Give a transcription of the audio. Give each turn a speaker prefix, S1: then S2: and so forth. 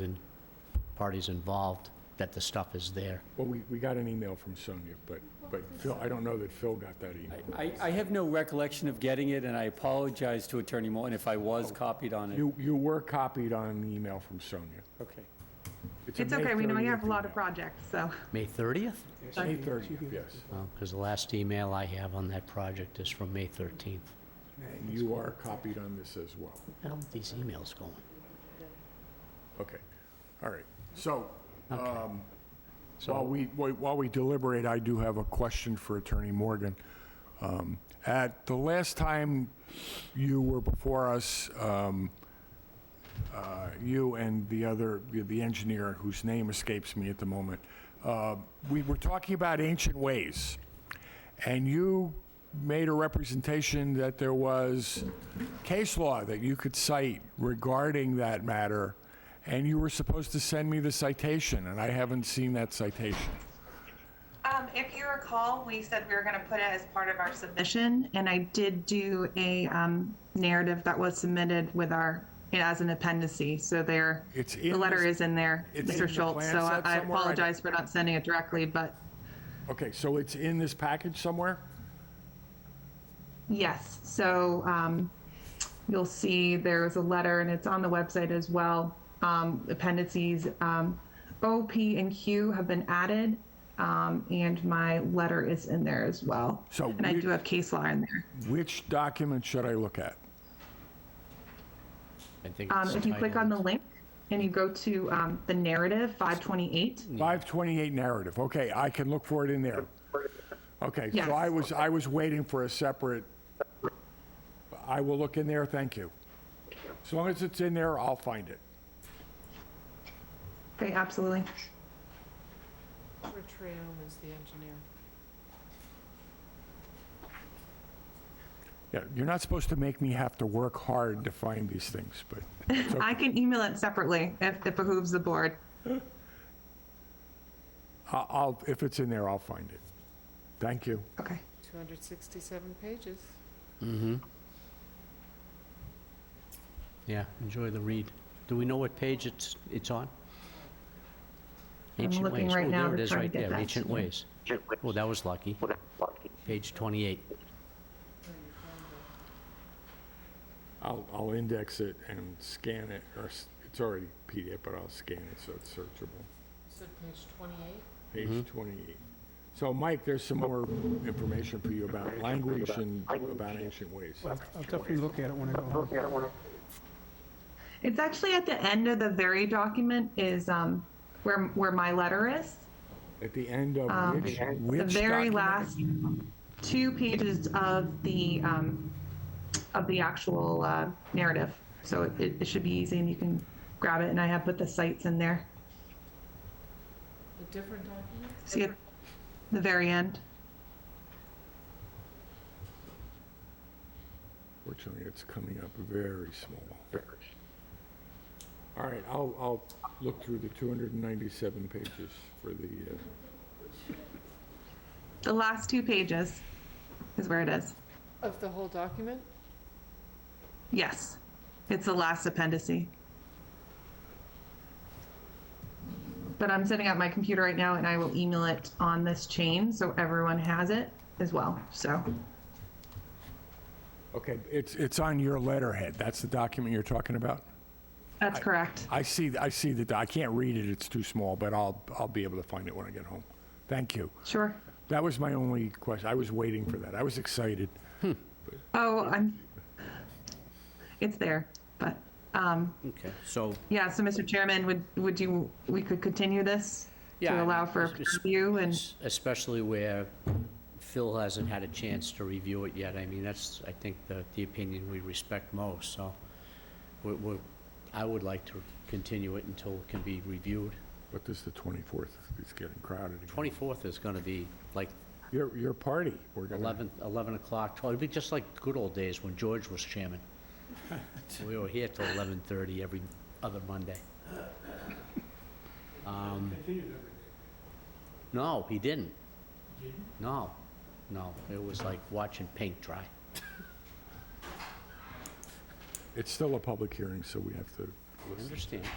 S1: and parties involved that the stuff is there.
S2: Well, we, we got an email from Sonia, but, but Phil, I don't know that Phil got that email.
S3: I, I have no recollection of getting it, and I apologize to Attorney Morton if I was copied on it.
S2: You, you were copied on an email from Sonia.
S3: Okay.
S2: a
S4: It's
S2: May
S4: okay, we know you
S2: 30th
S4: have a lot of
S2: email.
S4: projects, so.
S1: May 30th?
S2: May 30th, yes.
S1: Because the last email I have on that project is from May 13th.
S2: You are copied on this as well.
S1: Where are these emails going?
S2: Okay, all right. So um, while
S1: So,
S2: we, while we deliberate, I do have a question for Attorney Morgan. Um, At the last time you were before us, um, uh, you and the other, the engineer whose name escapes me at the moment, uh, we were talking about ancient ways. And you made a representation that there was case law that you could cite regarding that matter, and you were supposed to send me the citation, and I haven't seen that citation.
S4: Um, if you recall, we said we were gonna put it as part of our submission, and I did do a, um, narrative that was submitted with our, as an appendice, so there,
S2: It's in
S4: the letter
S2: this-
S4: is in there,
S2: it's in the
S4: Mr. Schultz,
S2: plan
S4: so
S2: set
S4: I I
S2: somewhere. I don't-
S4: apologize for not sending it directly, but
S2: Okay, so it's in this package somewhere?
S4: yes, so, um, you'll see there was a letter, and it's on the website as well, um, appendices, um, O, P, and Q have been added, um, and my letter is in there as well.
S2: So
S4: And I
S2: we-
S4: do have case law in there.
S2: Which document should I look at?
S1: I think
S4: Um,
S1: it's
S4: if you click on the
S1: titled-
S4: link and you go to um, the narrative 528,
S2: 528 narrative, okay, I can look for it in there. Okay,
S4: Yes.
S2: so I was, I was waiting for a separate, I will look in there, thank you. As long as it's in there, I'll find it.
S4: okay, absolutely.
S5: Retrail is the engineer.
S2: Yeah, you're not supposed to make me have to work hard to find these things, but it's okay.
S4: I can email it separately if it behooves the board.
S2: I- I'll, if it's in there, I'll find it. Thank you.
S4: Okay.
S5: 267 pages.
S1: Yeah, enjoy the read. Do we know what page it's, it's on? Ancient
S4: looking
S1: Ways.
S4: right
S1: Oh,
S4: now
S1: there it
S4: to
S1: is,
S4: try and
S1: right
S4: get
S1: there,
S4: that
S1: Ancient
S4: to me.
S1: Ways. Well, that was lucky. Page 28.
S2: I'll, I'll index it and scan it, or s- it's already PDF, but I'll scan it so it's searchable.
S5: So page 28?
S2: Page 28. So Mike, there's some more information for you about language and about ancient ways.
S6: I'll definitely look at it when I go home.
S4: It's actually at the end of the very document is um, where where my letter is.
S2: At the end of which, which
S4: The very
S2: document?
S4: last two pages of the um, of the actual uh, narrative. So it- it, it should be easy, and you can grab it. And I have put the sites in there.
S5: A different document?
S4: See at the very end.
S2: Fortunately, it's coming up very small. All right, I'll, I'll look through the 297 pages for the, uh,
S4: The last two pages is where it is.
S5: Of the whole document?
S4: Yes, it's the last appendice. But I'm setting up my computer right now and I will email it on this chain so everyone has it as well. So,
S2: okay, it's, it's on your letterhead. That's the document you're talking about?
S4: that's correct.
S2: I see, I see the, I can't read it, it's too small, but I'll, I'll be able to find it when I get home. Thank you.
S4: Sure.
S2: That was my only question. I was waiting for that. I was excited.
S4: Oh, I'm, it's there, but, um,
S1: Okay, so
S4: yeah, so Mr. Chairman, would, would you, we could continue this?
S1: Yeah,
S4: To
S1: I
S4: allow
S1: mean,
S4: for a
S1: it's- it's-
S4: preview and,
S1: es- Especially where Phil hasn't had a chance to review it yet. I mean, that's, I think, the, the opinion we respect most, so we we I would like to continue it until it can be reviewed.
S2: But this is the 24th. It's getting crowded again.
S1: 24th is gonna be like
S2: Your, your party. We're gonna-
S1: 11, 11 o'clock, 12, it'd be just like good old days when George was chairman. We were here till 11:30 every other Monday. Um, No, he didn't. No, no, it was like watching paint dry.
S2: It's still a public hearing, so we have to
S1: I
S2: listen.
S1: understand.